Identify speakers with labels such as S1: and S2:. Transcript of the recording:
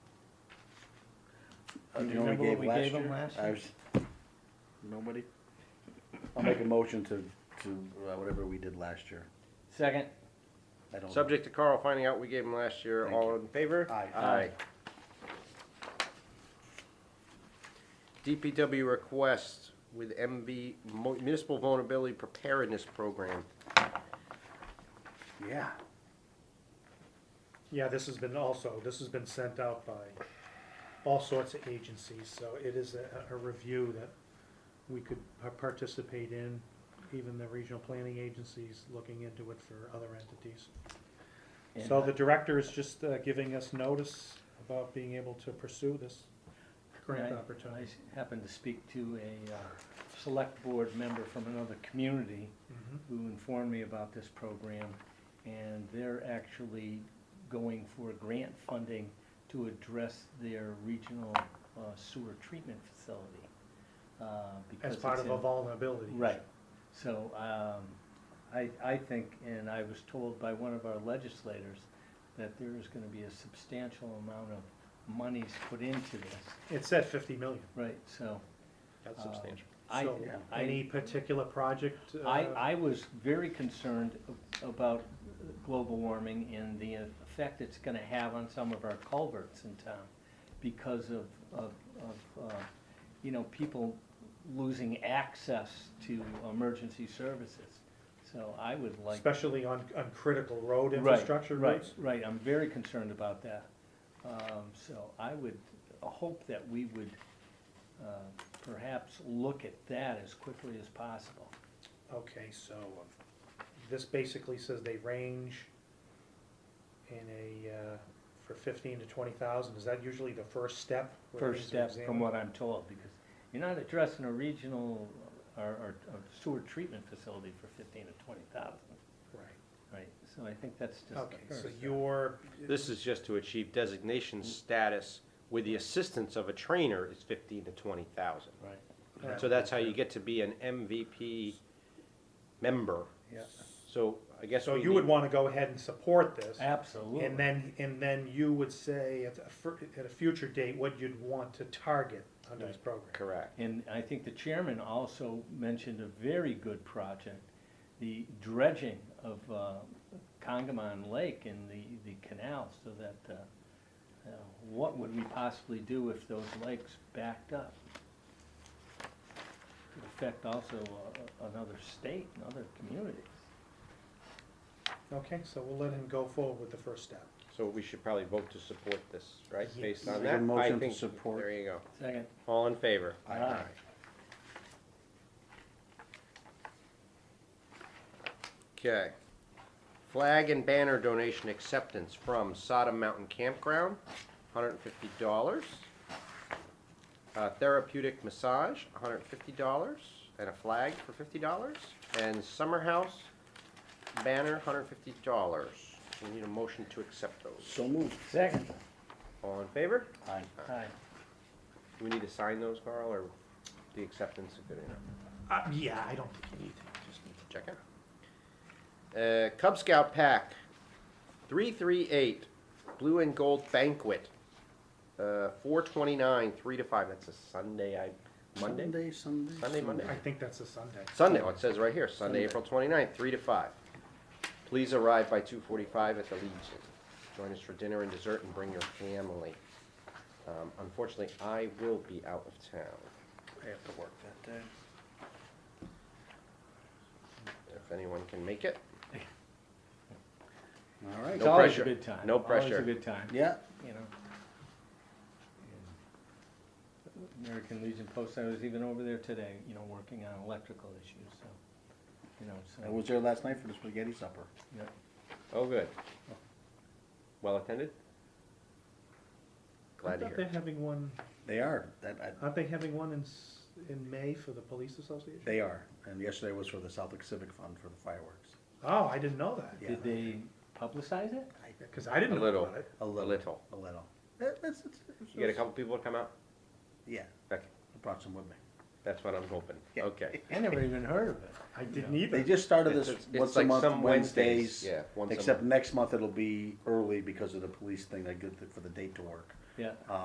S1: Uh, Do you
S2: know
S1: remember what we gave
S2: year?
S1: them last
S2: I
S1: year?
S2: was, nobody? I'll make a motion to, to uh, whatever we did last year.
S1: Second.
S2: I don't.
S3: Subject to Carl finding out we gave him last year,
S2: Thank
S3: all
S2: you.
S3: in favor?
S2: Aye.
S3: DPW request with MV Mo- Municipal Vulnerability Preparedness Program.
S2: Yeah,
S4: Yeah, this has been also, this has been sent out by all sorts of agencies, so it is a, a review that we could par- participate in, even the regional planning agencies looking into it for other entities. So the director is just uh, giving us notice about being able to pursue this grant
S1: Right. I
S4: opportunity.
S1: s- happened to speak to a, uh, select board member from another community
S4: Mhm.
S1: who informed me about this program, and they're actually going for grant funding to address their regional uh, sewer treatment facility. uh, because
S4: As part
S1: it's
S4: of a
S1: in-
S4: vulnerability. issue.
S1: Right, so, um, I, I think, and I was told by one of our legislators, that there is gonna be a substantial amount of monies put into this,
S4: It's at fifty million.
S1: right, so.
S3: That's
S1: uh,
S3: substantial.
S1: I,
S4: So
S2: yeah.
S4: any
S1: I,
S4: particular project?
S1: I,
S4: uh,
S1: I was very concerned about global warming and the effect it's gonna have on some of our culverts in town because of, of, of, uh, you know, people losing access to emergency services. So I would like.
S4: Especially on, on critical road
S1: Right,
S4: infrastructure
S1: Right,
S4: routes?
S1: right, I'm very concerned about that. Um, so I would hope that we would, uh, perhaps look at that as quickly as possible.
S4: Okay, so um, this basically says they range in a, uh, for fifteen to twenty thousand, is that usually the first step? where
S1: first
S4: things are
S1: step from
S4: examined?
S1: what I'm told, because you're not addressing a regional uh, or, or or sewer treatment facility for fifteen or twenty thousand,
S4: Right,
S1: right? So I think that's just
S4: okay,
S1: the
S4: so
S1: first.
S4: your,
S3: Uh, This is just to achieve designation status with the assistance of a trainer is fifteen to twenty thousand.
S1: Right,
S4: uh,
S3: So that's how you get to be an MVP member.
S1: yeah,
S3: So I guess
S4: so
S3: we
S4: you would
S3: need-
S4: wanna go ahead and support this?
S1: absolutely.
S4: And then, and then you would say at a, fir- at a future date, what you'd want to target under this program?
S3: Correct.
S1: And I think the chairman also mentioned a very good project, the dredging of uh, Congamon Lake and the, the canal, so that, uh, uh, what would we possibly do if those lakes backed up? Could affect also uh, another state and other communities.
S4: Okay, so we'll let him go forward with the first step.
S3: So we should probably vote to support this, right,
S4: Yes.
S3: based on
S2: Make a
S3: that? I
S2: motion to
S3: think-
S2: support.
S3: There you go.
S1: Second.
S3: All in favor?
S2: Aye.
S3: Okay. Flag and banner donation acceptance from Sodom Mountain Campground, hundred and fifty dollars. Uh, therapeutic massage, hundred and fifty dollars, and a flag for fifty dollars, and summer house banner, hundred and fifty dollars. We need a motion to accept those.
S2: so moved.
S1: Second.
S3: All in favor?
S2: Aye.
S1: Aye.
S3: Do we need to sign those, Carl, or the acceptance is good enough?
S4: Uh, yeah, I don't think you need
S3: Just need to check it. Uh, Cub Scout Pack, three three eight, Blue and Gold Banquet, uh, four twenty nine, three to five. That's a Sunday. I Monday.
S2: Sunday,
S3: Sunday,
S2: Sunday.
S3: Sunday, Monday.
S4: I think that's a Sunday.
S3: Oh, it says right here, Sunday,
S2: Sunday.
S3: April 29th, three to five. Please arrive by two forty five at the Legion. Join us for dinner and dessert, and bring your family. Um, unfortunately, I will be out of town.
S2: I have to work that day.
S3: If anyone can make it,
S2: All right.
S1: It's
S3: No
S1: always a
S3: pressure.
S1: good time.
S3: No
S1: Always
S3: pressure.
S1: a good time.
S2: Yeah,
S1: you know. And American Legion Post, I was even over there today, you know, working on electrical issues, so, you know, so.
S2: I was there last night for the spaghetti supper.
S1: yeah.
S3: oh, good. Well attended? Glad to
S4: Aren't
S3: hear.
S4: they
S3: it.
S4: having one,
S2: They are, that, I,
S4: aren't they having one in, s- in May for the police association?
S2: they are. And yesterday was for the Southwick Civic Fund for the fireworks.
S4: Oh, I didn't know that,
S2: Yeah.
S1: Did they publicize it?
S4: because I didn't
S3: A
S4: know
S3: little.
S4: about it.
S2: A little,
S3: little.
S2: a little. It- it's- it's- it's-
S3: You get a couple people to come out?
S2: Yeah,
S3: Okay,
S2: I brought some with me.
S3: that's what I'm hoping.
S2: Yeah.
S3: Okay.
S1: I never even heard of it.
S4: I
S1: you
S4: didn't
S1: know.
S4: either.
S2: They just started
S3: It's-
S2: this
S3: it's- it's
S2: once a
S3: like
S2: month,
S3: some Wednesdays,
S2: Wednesdays.
S3: yeah, once a
S2: Except
S3: month.
S2: next month it'll be early because of the police thing, I get the- for the date to work.
S1: Yeah.